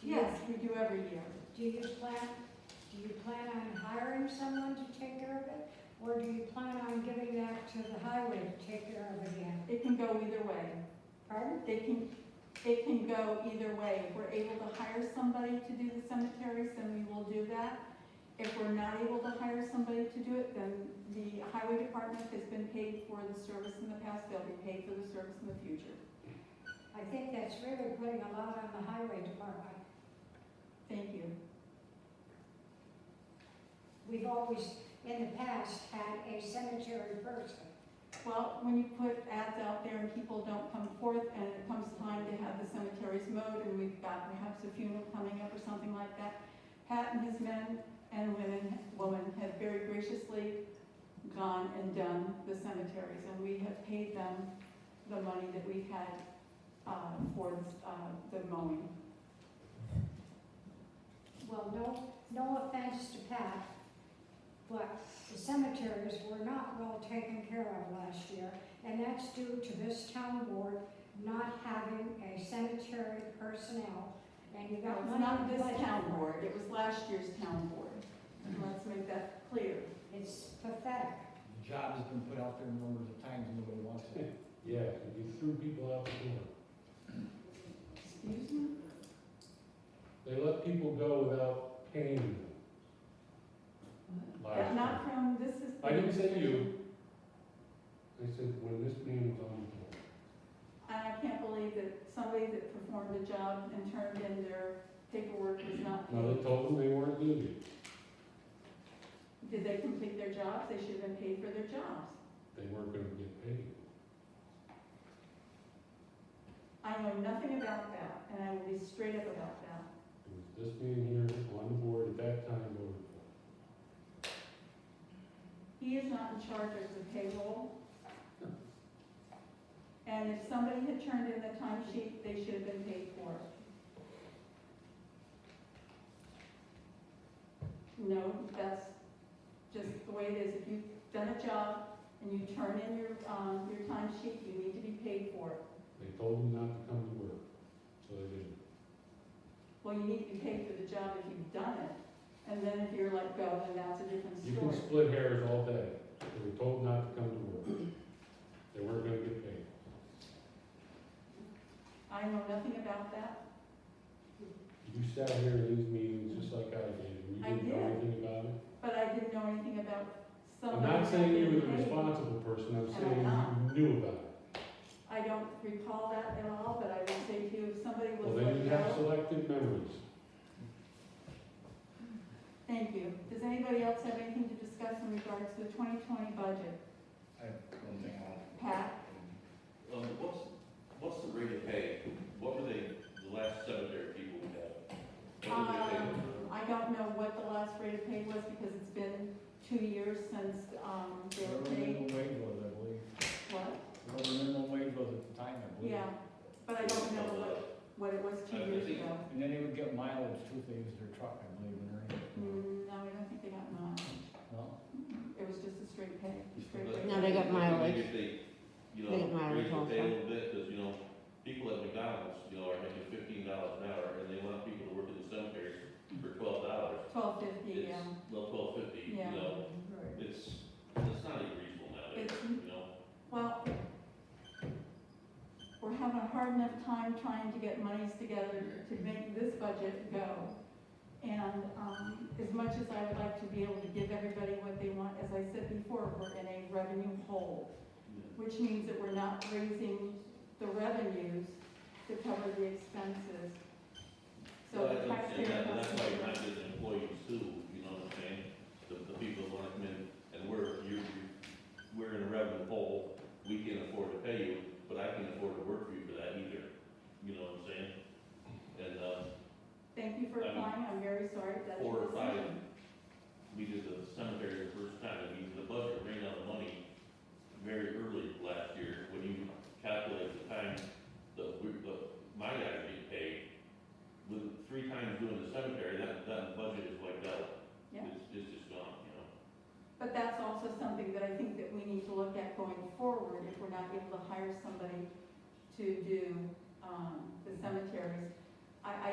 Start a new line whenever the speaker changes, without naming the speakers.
Do you-
Yes, we do every year.
Do you plan, do you plan on hiring someone to take care of it? Or do you plan on giving that to the highway to take care of again?
It can go either way.
Pardon?
They can, it can go either way. If we're able to hire somebody to do the cemeteries, then we will do that. If we're not able to hire somebody to do it, then the highway department has been paid for the service in the past, they'll be paid for the service in the future.
I think that's really putting a lot on the highway department.
Thank you.
We've always, in the past, had a cemetery person.
Well, when you put ads out there and people don't come forth, and it comes time to have the cemeteries mowed, and we've got perhaps a funeral coming up or something like that, Pat and his men and women, women have very graciously gone and done the cemeteries, and we have paid them the money that we had, uh, for, uh, the mowing.
Well, no, no offense to Pat, but the cemeteries were not well taken care of last year, and that's due to this town board not having a cemetery personnel, and you
It
got
was
money.
not
in the
this
budget.
town board, it was last year's town board,
Mm-hmm.
let's make that clear.
It's pathetic.
The job has been put out there numbers of times, and nobody wants it.
Yeah, you threw people out the door.
Excuse me?
They let people go without paying them.
But
Last year.
not from, this is.
I didn't say you. I said, when this man was on the board.
And I can't believe that somebody that performed a job and turned in their paperwork was not
Now
paid.
they told them they weren't doing it.
Did they complete their jobs? They should have been paid for their jobs.
They weren't gonna get paid.
I know nothing about that, and I will be straight up about that.
It was this man here on the board at that time voted for. it.
He is not in charge of the payroll. And if somebody had turned in the timesheet, they should have been paid for it. No, that's just the way it is. If you've done a job and you turn in your, um, your timesheet, you need to be paid for it.
They told them not to come to work, so they didn't.
Well, you need to be paid for the job if you've done it. And then if you're let go, then that's a different
You can
story.
split hairs all day. They were told not to come to work. They weren't gonna get paid.
I know nothing about that.
You sat here in these meetings just like I did, and you
I
didn't know
did.
anything about it.
But I didn't know anything about
I'm
somebody.
not saying you were the
being paid.
responsible person, I'm
I'm
saying
not.
you knew about it.
I don't recall that at all, but I will say to you, if somebody
Well,
was
then
let
you have
go.
selective memories.
Thank you. Does anybody else have anything to discuss in regards to the twenty twenty budget?
I don't think I'll.
Pat,
Um, what's, what's the rate of pay? What were they, the last cemetery people we had? What did they pay
Um,
them for?
I don't know what the last rate of pay was because it's been two years since, um, they were
Whatever
paid.
minimum wage was, I believe.
What?
Whatever minimum wage was at the time, I believe.
Yeah, but I don't know what, what it was two
I- I
years
think-
ago.
And then they would get mileage too, if they used their truck, I believe, in earning.
Mm, No, I don't think they got mileage.
No?
It was just a straight pay, straight
But-
rate.
No, they got mileage.
If they, you
They got
know, raise
mileage
the pay a
also.
little bit, because, you know, people at McDonald's, you know, are making fifteen dollars an hour, and they want people to work in the cemetery for twelve dollars.
Twelve fifty,
It's,
yeah.
well, twelve fifty, you
Yeah.
know, it's, it's not even reasonable nowadays,
It's-
you know?
Well, we're having a hard enough time trying to get monies together to make this budget go. And, um, as much as I would like to be able to give everybody what they want, as I said before, we're in a revenue hole, which means that we're not raising the revenues to cover the expenses. So the
Well, I think-
taxpayer
And that-
has
that's why you're not
to.
getting employees too, you know what I'm saying? The, the people that wanna come in, and we're, you're, you're- we're in a revenue hole, we can't afford to pay you, but I can't afford to work for you for that either, you know what I'm saying? And, uh,
Thank you for
I mean,
applying, I'm very sorry if that's.
four or
your
five
decision.
we did the cemetery the first time, I mean, the budget ran out of money very early last year, when you calculate the time that we, the, my guys get paid, with three times doing the cemetery, that, that budget is wiped out.
Yeah.
It's, it's just gone, you know?
But that's also something that I think that we need to look at going forward, if we're not able to hire somebody to do, um, the cemeteries. I, I